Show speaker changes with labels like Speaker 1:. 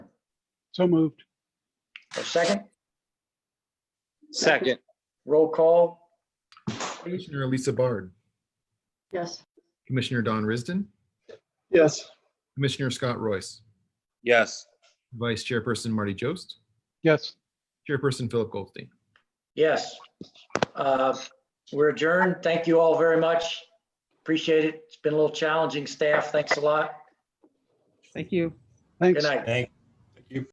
Speaker 1: So moved.
Speaker 2: A second,
Speaker 3: Second,
Speaker 2: roll call,
Speaker 4: Commissioner Elisa Bard,
Speaker 5: Yes.
Speaker 4: Commissioner Don Risden,
Speaker 1: Yes.
Speaker 4: Commissioner Scott Royce,
Speaker 3: yes,
Speaker 4: Vice Chairperson Marty Jost,
Speaker 1: Yes.
Speaker 4: Chairperson Philip Goldstein.
Speaker 2: yes. Uh, We're adjourned. Thank you all very much. Appreciate it. It's been a little challenging, staff. Thanks a lot.
Speaker 6: Thank you.
Speaker 1: Thanks.
Speaker 2: Good night.
Speaker 7: Thank,